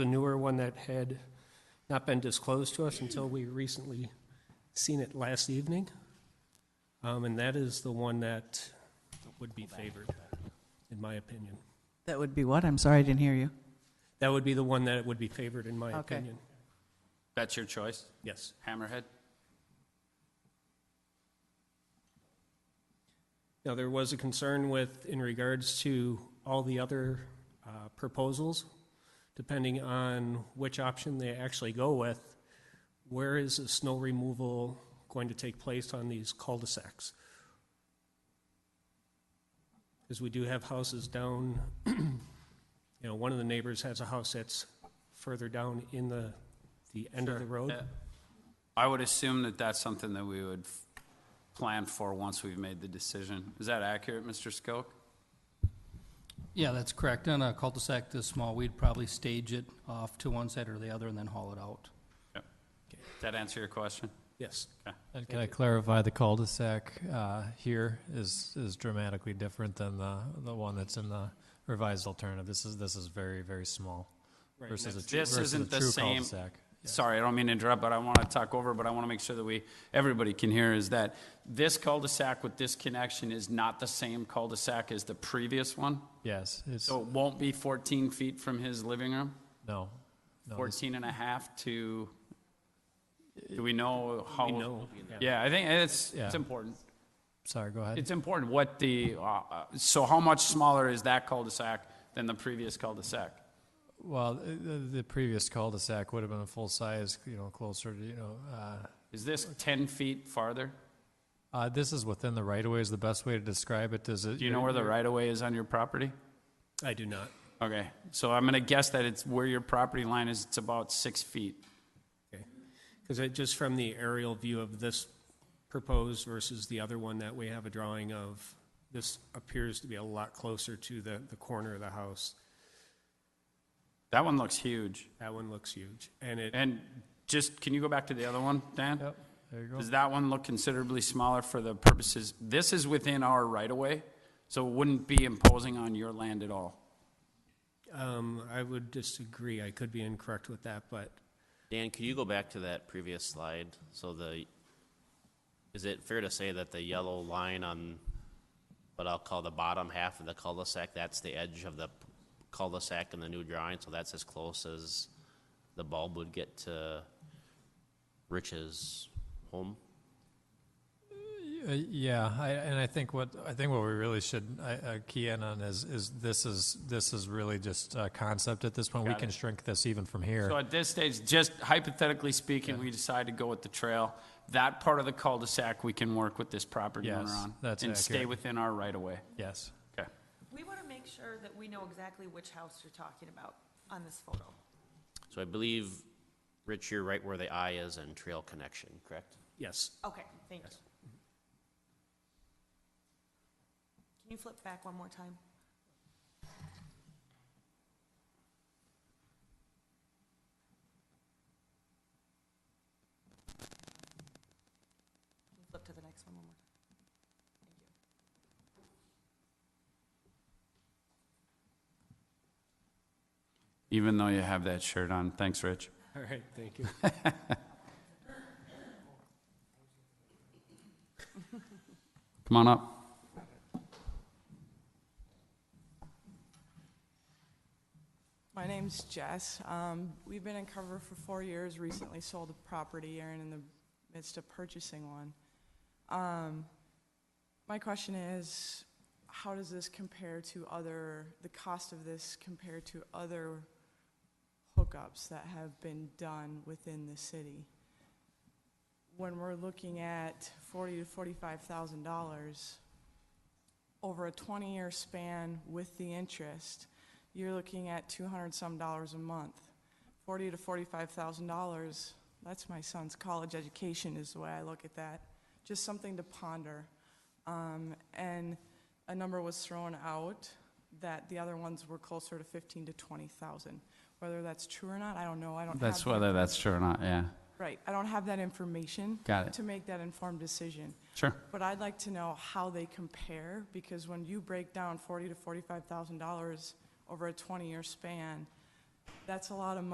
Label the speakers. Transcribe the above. Speaker 1: the newer one that had not been disclosed to us until we recently seen it last evening. Um, And that is the one that would be favored, in my opinion.
Speaker 2: That would be what? I'm sorry, I didn't hear you.
Speaker 1: That would be the one that would be favored, in my
Speaker 2: Okay.
Speaker 1: opinion.
Speaker 3: That's your choice,
Speaker 1: Yes.
Speaker 3: Hammerhead?
Speaker 1: Now, there was a concern with, in regards to all the other uh, proposals, depending on which option they actually go with, where is the snow removal going to take place on these cul-de-sacs? Because we do have houses down, you know, one of the neighbors has a house that's further down in the, the end of the road.
Speaker 3: Yeah. I would assume that that's something that we would f- plan for once we've made the decision. Is that accurate, Mr. Skoke?
Speaker 4: Yeah, that's correct. On a cul-de-sac this small, we'd probably stage it off to one side or the other and then haul it out.
Speaker 3: Yep. Does that answer your question?
Speaker 1: Yes.
Speaker 5: And can I clarify, the cul-de-sac uh, here is, is dramatically different than the, the one that's in the revised alternative. This is, this is very, very small
Speaker 1: Right, and
Speaker 5: versus a
Speaker 1: that's-
Speaker 5: true,
Speaker 3: This
Speaker 5: versus a
Speaker 3: isn't the
Speaker 5: true
Speaker 3: same-
Speaker 5: cul-de-sac.
Speaker 3: Sorry, I don't mean to interrupt, but I want to talk over, but I want to make sure that we, everybody can hear, is that this cul-de-sac with this connection is not the same cul-de-sac as the previous one?
Speaker 5: Yes, it's,
Speaker 3: So it won't be 14 feet from his living room?
Speaker 5: no, no, this-
Speaker 3: 14 and a half to, do we know how?
Speaker 1: We know,
Speaker 3: Yeah, I think it's, it's
Speaker 5: Yeah.
Speaker 3: important.
Speaker 5: sorry, go ahead.
Speaker 3: It's important what the, uh, uh, so how much smaller is that cul-de-sac than the previous cul-de-sac?
Speaker 5: Well, the, the previous cul-de-sac would have been a full size, you know, closer to, you know, uh,
Speaker 3: Is this 10 feet farther?
Speaker 5: uh, this is within the right of way is the best way to describe it. Does it?
Speaker 3: Do you know where the right-of-way is on your property?
Speaker 1: I do not.
Speaker 3: Okay, so I'm gonna guess that it's where your property line is, it's about six feet.
Speaker 1: Because it, just from the aerial view of this proposed versus the other one that we have a drawing of, this appears to be a lot closer to the, the corner of the house.
Speaker 3: That one looks huge.
Speaker 1: That one looks huge. And it,
Speaker 3: And just, can you go back to the other one, Dan?
Speaker 5: Yep, there you go.
Speaker 3: Does that one look considerably smaller for the purposes, this is within our right-of-way, so it wouldn't be imposing on your land at all.
Speaker 1: um, I would disagree. I could be incorrect with that, but
Speaker 6: Dan, could you go back to that previous slide? So the, is it fair to say that the yellow line on what I'll call the bottom half of the cul-de-sac, that's the edge of the cul-de-sac in the new drawing, so that's as close as the bulb would get to Rich's home?
Speaker 5: Uh, Yeah, I, and I think what, I think what we really should uh, uh, key in on is, is this is, this is really just a concept at this point. We
Speaker 3: Got it.
Speaker 5: can shrink this even from here.
Speaker 3: So at this stage, just hypothetically speaking, we decide to go with the trail, that part of the cul-de-sac, we can work with this property owner
Speaker 5: Yes,
Speaker 3: on.
Speaker 5: that's
Speaker 3: And stay
Speaker 5: accurate.
Speaker 3: within our right-of-way.
Speaker 5: Yes.
Speaker 3: Okay.
Speaker 7: We want to make sure that we know exactly which house you're talking about on this photo.
Speaker 6: So I believe, Rich, you're right where the I is in trail connection, correct?
Speaker 1: yes.
Speaker 7: Okay, thank you. Can you flip back one more time? Can you Flip to the next one one more time. Thank you.
Speaker 3: Even though you have that shirt on, thanks, Rich.
Speaker 1: All right, thank you.
Speaker 3: Come on up.
Speaker 8: My name's Jess. Um, we've been in cover for four years, recently sold a property and in the midst of purchasing one. Um, my question is, how does this compare to other, the cost of this compare to other hookups that have been done within the city? When we're looking at forty to forty-five thousand dollars over a twenty-year span with the interest, you're looking at two hundred some dollars a month. Forty to forty-five thousand dollars, that's my son's college education is the way I look at that. Just something to ponder. Um, and a number was thrown out that the other ones were closer to fifteen to twenty thousand. Whether that's true or not, I don't know, I don't have.
Speaker 3: That's
Speaker 8: the-
Speaker 3: whether that's true or not, yeah.
Speaker 8: Right, I don't have that information.
Speaker 3: Got it.
Speaker 8: To make that informed decision.
Speaker 3: Sure.
Speaker 8: But I'd like to know how they compare, because when you break down forty to forty-five thousand dollars over a twenty-year span, that's a lot of money.